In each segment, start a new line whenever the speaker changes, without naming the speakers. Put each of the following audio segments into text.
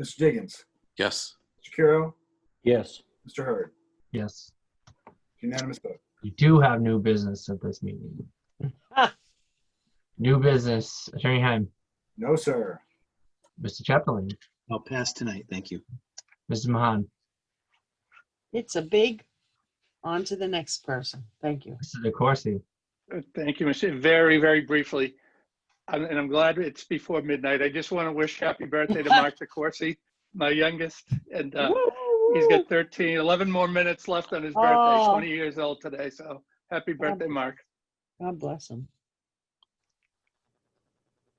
Mr. Diggins,
Yes.
Mr. Kuro,
Yes.
Mr. Hurd.
Yes.
Unanimous vote.
We do have new business at this meeting. New business, Attorney Heim,
No, sir.
Mr. Chaplin,
I'll pass tonight, thank you.
Mrs. Mahan.
It's a big, on to the next person. Thank you.
Mr. DeCoursey.
Uh, Thank you, Mr. Very, very briefly, I'm- and I'm glad it's before midnight. I just want to wish happy birthday to Mark DeCoursey, my youngest, and uh, he's got 13, 11 more minutes left on his birthday,
Oh.
20 years old today, so happy birthday, Mark.
God bless him.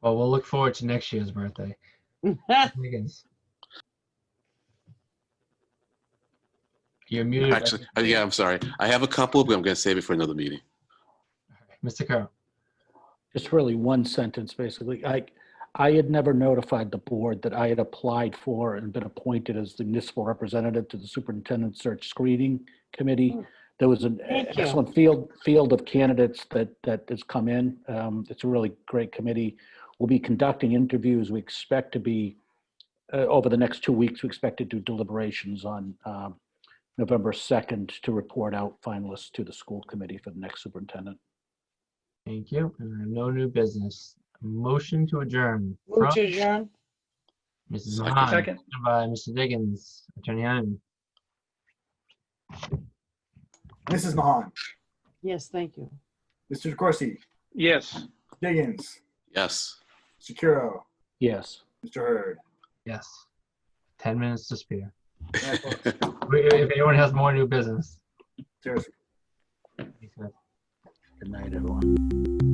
Well, we'll look forward to next year's birthday. Higgins. You're muted.
Actually, uh, yeah, I'm sorry. I have a couple, but I'm going to save it for another meeting.
Mr. Carroll.
Just really one sentence, basically. I, I had never notified the board that I had applied for and been appointed as the municipal representative to the superintendent search screening committee. There was an
Hmm. Thank you.
excellent field, field of candidates that, that has come in. Um, It's a really great committee. We'll be conducting interviews. We expect to be, uh, over the next two weeks, we expect to do deliberations on um, November 2nd to report out finalists to the school committee for the next superintendent.
Thank you. And no new business. Motion to adjourn. from
Move to adjourn.
Mrs.
Second.
Mahan.
Second.
seconded By Mr. Diggins. Attorney Heim.
Mrs. Mahan,
Yes, thank you.
Mr. DeCoursey,
Yes.
Diggins,
Yes.
Mr. Kuro,
Yes.
Mr. Hurd.
Yes. Ten minutes to spare. We- If anyone has more new business.
Seriously.
please go ahead.
Good night, everyone.